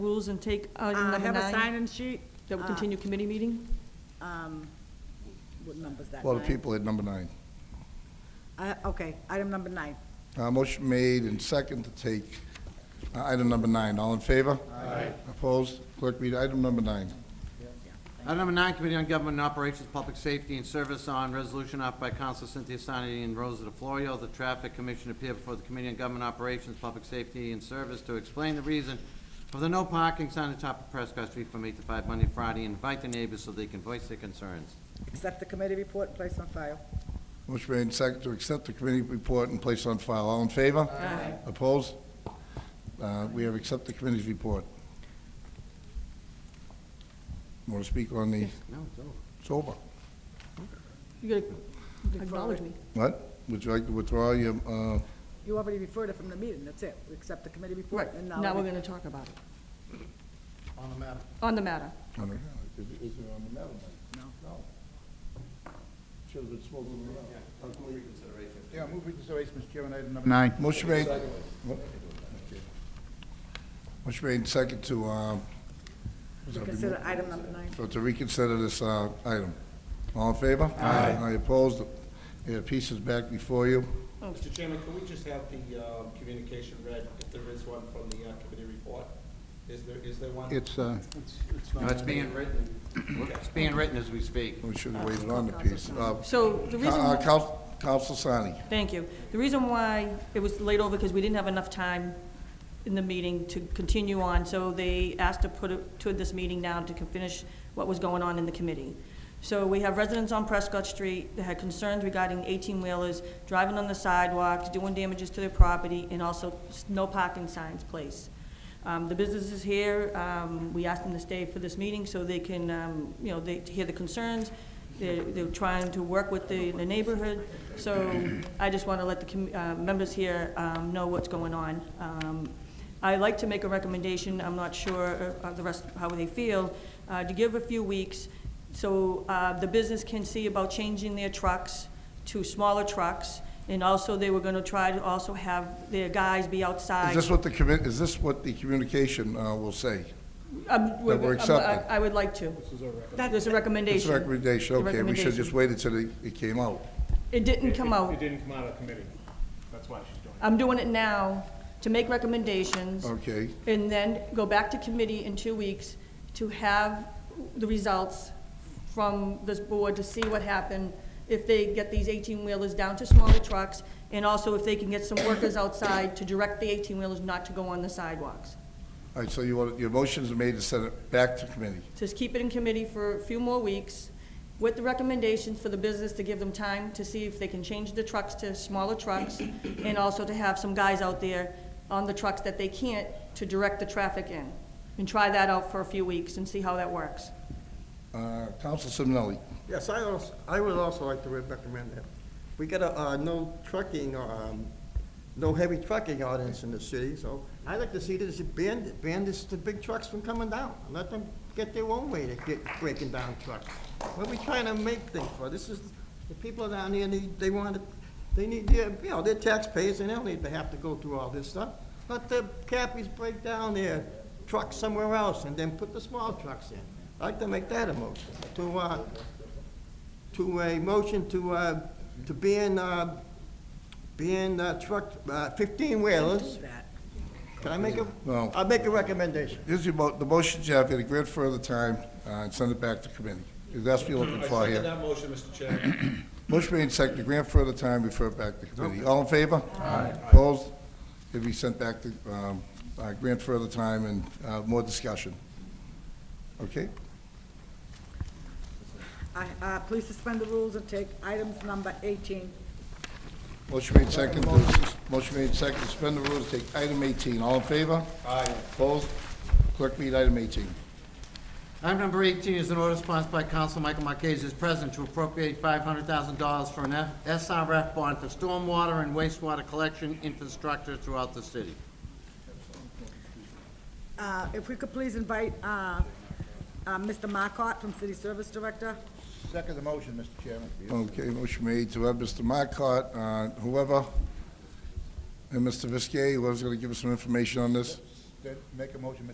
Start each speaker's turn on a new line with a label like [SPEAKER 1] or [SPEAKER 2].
[SPEAKER 1] rules and take item
[SPEAKER 2] I
[SPEAKER 1] number
[SPEAKER 2] have a Ah.
[SPEAKER 1] nine,
[SPEAKER 2] sign-in sheet.
[SPEAKER 1] that we continue committee meeting?
[SPEAKER 2] Um, What number's that?
[SPEAKER 3] A lot of
[SPEAKER 2] Nine?
[SPEAKER 3] people at number nine.
[SPEAKER 2] I- Okay, item number nine.
[SPEAKER 3] Uh, Motion made and second to take uh, item number nine. All in favor? Aye. Opposed? Clerk, read item number nine.
[SPEAKER 4] Item number nine, Committee on Government and Operations, Public Safety and Service on Resolution offered by Council Cynthia Sarnity and Rosa DeFlorio. The Traffic Commission appeared before the Committee on Government Operations, Public Safety and Service to explain the reason for the no parking sign on top of Prescott Street from eight to five Monday, Friday, and invite the neighbors so they can voice their concerns.
[SPEAKER 2] Accept the committee report and place on file.
[SPEAKER 3] Motion made and second to accept the committee report and place on file. All in favor? Aye. Opposed? Uh, We have accept the committee's report. Want to speak on the,
[SPEAKER 4] No, it's over.
[SPEAKER 3] it's over.
[SPEAKER 1] You gotta acknowledge me.
[SPEAKER 3] What? Would you like to withdraw your, uh,
[SPEAKER 2] You already referred it from the meeting, that's it. We Accept the committee report. and
[SPEAKER 1] Now we're gonna talk about it,
[SPEAKER 4] On the matter.
[SPEAKER 1] on the matter.
[SPEAKER 3] I don't know. Is it is it on the metal No. No. Should have been spoken about.
[SPEAKER 5] Yeah, move reconsideration, Mr. Chairman, item number nine.
[SPEAKER 3] Motion made. Motion made second to, uh,
[SPEAKER 2] Consider item number nine.
[SPEAKER 3] for- to reconsider this, uh, item. All in favor? Aye. I opposed. Yeah, piece is back before you.
[SPEAKER 6] Mr. Oh, Chairman, can we just have the um, communication read, if there is one from the uh, committee report? Is there, is there one?
[SPEAKER 5] It's, uh,
[SPEAKER 4] No, it's being written, it's being written as we speak.
[SPEAKER 3] We should have waited on the piece. Uh,
[SPEAKER 1] So the reason.
[SPEAKER 3] Coun- uh, Coun- Counsel Sani.
[SPEAKER 1] Thank you. The reason why it was laid over, because we didn't have enough time in the meeting to continue on, so they asked to put it to this meeting now to finish what was going on in the committee. So we have residents on Prescott Street that had concerns regarding eighteen-wheelers driving on the sidewalks, doing damages to their property, and also s- no parking signs placed. Um, The businesses here, um, we asked them to stay for this meeting so they can, um, you know, they, to hear the concerns. They're, they're trying to work with the, the neighborhood. So I just want to let the commu- uh, members here um, know what's going on. Um, I like to make a recommendation, I'm not sure uh, of the rest, how they feel, uh, to give a few weeks so uh, the business can see about changing their trucks to smaller trucks. And also, they were going to try to also have their guys be outside.
[SPEAKER 3] Is this what the commit, is this what the communication, uh, will say?
[SPEAKER 1] Um,
[SPEAKER 3] we're
[SPEAKER 1] we- um,
[SPEAKER 3] accepting.
[SPEAKER 1] I I would like to. There's a recommendation.
[SPEAKER 3] It's a recommendation,
[SPEAKER 1] The
[SPEAKER 3] okay, we should have just
[SPEAKER 1] recommendation.
[SPEAKER 3] waited till it it came out.
[SPEAKER 1] It didn't come
[SPEAKER 6] It
[SPEAKER 1] out.
[SPEAKER 6] didn't come out of committee. That's why she's doing
[SPEAKER 1] I'm doing it now to make recommendations.
[SPEAKER 3] Okay.
[SPEAKER 1] And then go back to committee in two weeks to have the results from this board to see what happened, if they get these eighteen-wheelers down to smaller trucks, and also if they can get some workers outside to direct the eighteen-wheelers not to go on the sidewalks.
[SPEAKER 3] All right, so you want, your motion's made to send it back to committee.
[SPEAKER 1] just keep it in committee for a few more weeks with the recommendations for the business to give them time to see if they can change the trucks to smaller trucks and also to have some guys out there on the trucks that they can't to direct the traffic in. And try that out for a few weeks and see how that works.
[SPEAKER 3] Uh, Counsel Simonelli,
[SPEAKER 7] Yes, I also, I would also like to recommend that. We got a, uh, no trucking, um, no heavy trucking ordinance in the city, so I'd like to see this ban, ban this, the big trucks from coming down. Let them get their own way to get breaking down trucks. What are we trying to make things for? This is, the people down here need, they want to, they need, their- you know, they're taxpayers and they don't need to have to go through all this stuff. Let the cappies break down their trucks somewhere else and then put the small trucks in. I'd like to make that a motion to, uh, to a motion to, uh, to ban, uh, ban uh, truck, fifteen wheelers. Can I make a,
[SPEAKER 3] No.
[SPEAKER 7] I'll make a recommendation.
[SPEAKER 3] here's your mo, the motion, Jeff, you had to grant further time, uh, and send it back to committee. If that's what you're looking
[SPEAKER 6] it.
[SPEAKER 3] for
[SPEAKER 6] I second
[SPEAKER 3] here.
[SPEAKER 6] that motion, Mr. Chairman.
[SPEAKER 3] Motion made and seconded to grant further time, refer it back to committee. All in favor? Aye. Opposed? It'll be sent back to, um, uh, grant further time and, uh, more discussion. Okay?
[SPEAKER 2] I- uh, Please suspend the rules and take items number 18.
[SPEAKER 3] Motion made second, to- motion made second, to suspend the rules, take item eighteen. All in favor? Aye. Opposed? Clerk, read item eighteen.
[SPEAKER 4] Item number 18 is an order sponsored by Council Michael Marquez as president to appropriate $500,000 for an F- SRF bond for stormwater and wastewater collection infrastructure throughout the city.
[SPEAKER 2] Uh, If we could please invite uh, uh, Mr. Markot from City Service Director.
[SPEAKER 5] second the motion, Mr. Chairman.
[SPEAKER 3] Okay, motion made to have Mr. Marcot, uh, whoever, and Mr. Viskey, whoever's going to give us some information on this.
[SPEAKER 5] Then Make a motion, Mr.